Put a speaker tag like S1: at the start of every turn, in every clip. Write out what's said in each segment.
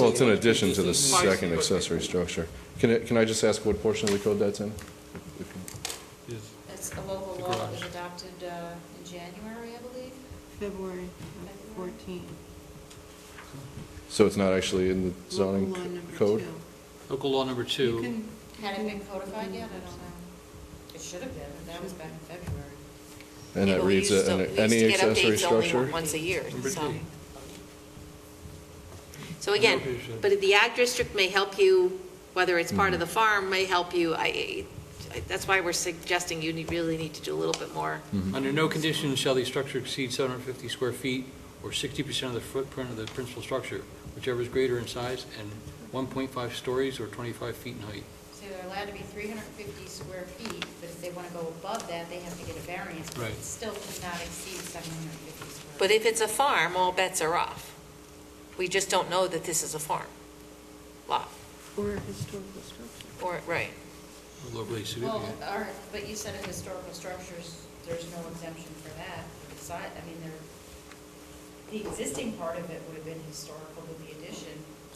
S1: Well, it's in addition to the second accessory structure. Can I, can I just ask what portion of the code that's in?
S2: It's a local law that was adopted uh, in January, I believe.
S3: February
S2: February.
S3: of 14.
S1: So it's not actually in the zoning
S3: Local law number
S1: code?
S3: two. Mm-hmm.
S4: Local law number
S3: You
S4: two,
S3: can-
S2: Had it
S3: you
S2: been
S3: can-
S2: codified yet? I don't know. It should have been, but that was back in February.
S1: And
S5: Yeah,
S1: that
S5: but we
S1: reads,
S5: used to-
S1: uh,
S5: we
S1: an-
S5: used
S1: any
S5: to get
S1: accessory
S5: updates only
S1: structure?
S5: Once a year,
S4: Number
S5: so.
S4: two.
S5: So again, but the ag district may help you, whether it's
S1: Mm-hmm.
S5: part of the farm, may help you. I, I- that's why we're suggesting you need- really need to do a little bit more.
S1: Mm.
S4: under no condition shall the structure exceed 750 square feet or 60% of the footprint of the principal structure, whichever is greater in size, and 1.5 stories or 25 feet in height.
S2: So they're allowed to be 350 square feet, but if they want to go above that, they have to get a variance. but
S4: Right.
S2: It still cannot exceed 750 square.
S5: But
S2: feet.
S5: if it's a farm, all bets are off. We just don't know that this is a farm lot,
S3: Or a historical structure.
S5: or, right.
S4: Locally
S2: Well,
S4: significant.
S2: all right, but you said in historical structures, there's no exemption for that. The si- I mean, there, the existing part of it would have been historical, but the addition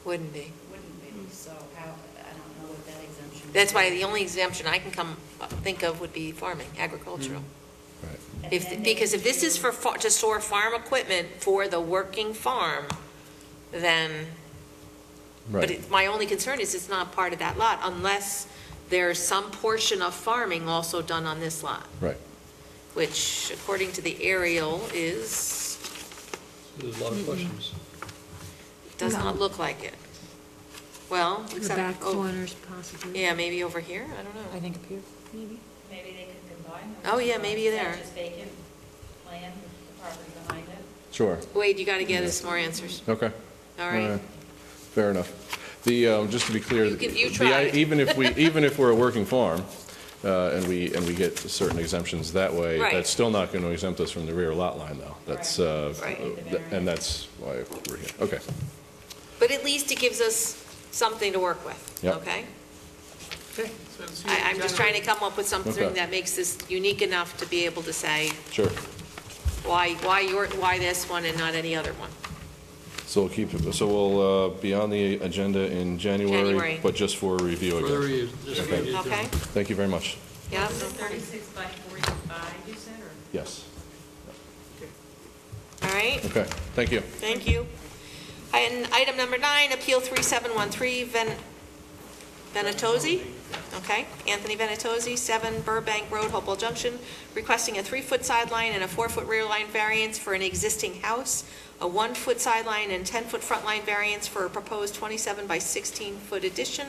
S5: Wouldn't be.
S2: wouldn't be. So how, I don't know what that exemption.
S5: That's why
S2: is.
S5: the only exemption I can come, uh, think of would be farming, agricultural.
S1: Right.
S2: And then
S5: If,
S2: they
S5: because if this is for,
S2: do-
S5: fa- to store farm equipment for the working farm, then, but
S1: Right.
S5: it- my only concern is it's not part of that lot unless there's some portion of farming also done on this lot,
S1: Right.
S5: which according to the aerial is,
S4: There's a lot of questions.
S5: does not look like it. Well,
S6: The back
S5: except, oh,
S6: corners possibly.
S5: yeah, maybe over here, I don't
S6: I
S5: know.
S6: think up here, maybe.
S2: Maybe they could combine them.
S5: Oh, yeah, maybe
S2: Is that
S5: there.
S2: Just vacant land, with the property behind it.
S1: Sure.
S5: Wade, you got to get us more answers,
S1: Okay.
S5: all right?
S1: Fair enough. The, um, just to be clear.
S5: You give- you
S1: the-
S5: try.
S1: Even if we, even if we're a working farm, uh, and we, and we get certain exemptions that way,
S5: Right.
S1: that's still not going to exempt us from the rear lot line, though. That's, uh,
S5: Right.
S1: th- and that's why we're here. Okay.
S5: But at least it gives us something to work with,
S1: Yep.
S5: okay? I, I'm just trying to come up with something
S1: Okay.
S5: that makes this unique enough to be able to say
S1: Sure.
S5: why, why your, why this one and not any other one.
S1: So we'll keep, it- so we'll uh, be on the agenda in January,
S5: January.
S1: but just for review
S4: Further
S1: again.
S4: review, just review it.
S5: Okay?
S1: Thank you very much.
S5: Yeah?
S7: Was it 36 by 45, you said, or?
S1: Yes.
S5: All right,
S1: Okay, thank you.
S5: thank you. And item number nine, Appeal 3713 Ven- Venatozzi, okay? Anthony Venatozzi, 7 Burbank Road, Hopewell Junction, requesting a 3-foot sideline and a 4-foot rear line variance for an existing house, a 1-foot sideline and 10-foot front line variance for a proposed 27 by 16-foot addition,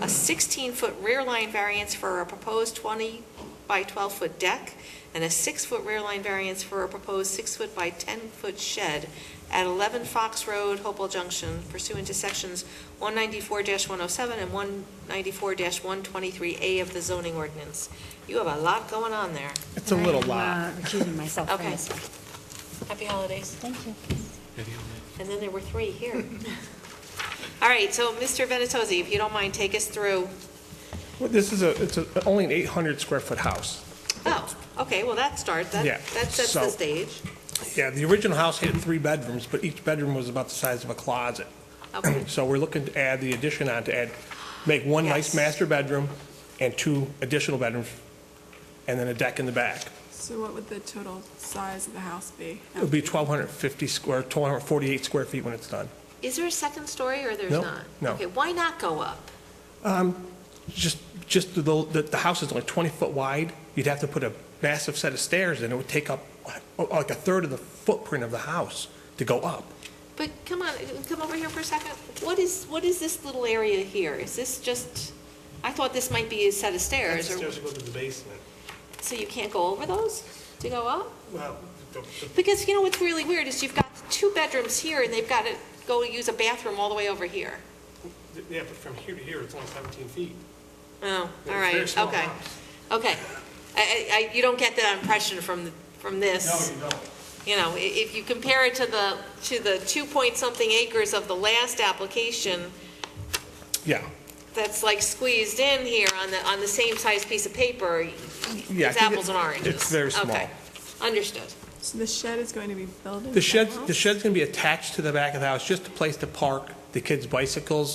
S5: a 16-foot rear line variance for a proposed 20 by 12-foot deck, and a 6-foot rear line variance for a proposed 6-foot by 10-foot shed at 11 Fox Road, Hopewell Junction pursuant to sections 194-107 and 194-123A of the zoning ordinance. You have a lot going on there.
S8: It's a little lot.
S6: I'm uh, recusing myself from
S5: Okay.
S6: this one.
S5: Happy holidays.
S6: Thank you.
S4: Maybe on that.
S5: And then there were three here. All right, so Mr. Venatozzi, if you don't mind, take us through.
S8: Well, This is a, it's a, only an 800 square foot house.
S5: Oh, okay, well, that starts, that
S8: Yeah,
S5: that sets the
S8: so-
S5: stage.
S8: Yeah, the original house had three bedrooms, but each bedroom was about the size of a closet.
S5: Okay.
S8: So we're looking to add the addition on to add, make one
S5: Yes.
S8: nice master bedroom and two additional bedrooms, and then a deck in the back.
S9: So what would the total size of the house be?
S8: It would be 1,250 square, 1,248 square feet when it's done.
S5: Is there a second story or there's
S8: No,
S5: not?
S8: no.
S5: Okay, why not go up?
S8: Just, just the, the the house is only 20 foot wide. You'd have to put a massive set of stairs, and it would take up uh, like a third of the footprint of the house to go up.
S5: But come on, come over here for a second. What is, what is this little area here? Is this just, I thought this might be a set of stairs, or,
S8: go to the basement.
S5: so you can't go over those to go up?
S8: Well, the- the-
S5: Because you know what's really weird is you've got two bedrooms here, and they've got to go use a bathroom all the way over here.
S8: yeah, but from here to here, it's only 17 feet.
S5: Oh,
S8: Yeah,
S5: all
S8: it's very
S5: right,
S8: small
S5: okay.
S8: house.
S5: Okay. I, I, I- you don't get that impression from, from this.
S8: don't.
S5: You know, i- if you compare it to the, to the two point something acres of the last application,
S8: Yeah,
S5: that's like squeezed in here on the, on the same size piece of paper,
S8: yeah. I
S5: it's
S8: think
S5: apples
S8: it-
S5: and oranges.
S8: It's very small.
S5: Okay, understood.
S9: So the shed is going to be built into
S8: The shed,
S9: house?
S8: the shed's going to be attached to the back of the house, just a place to park the kids' bicycles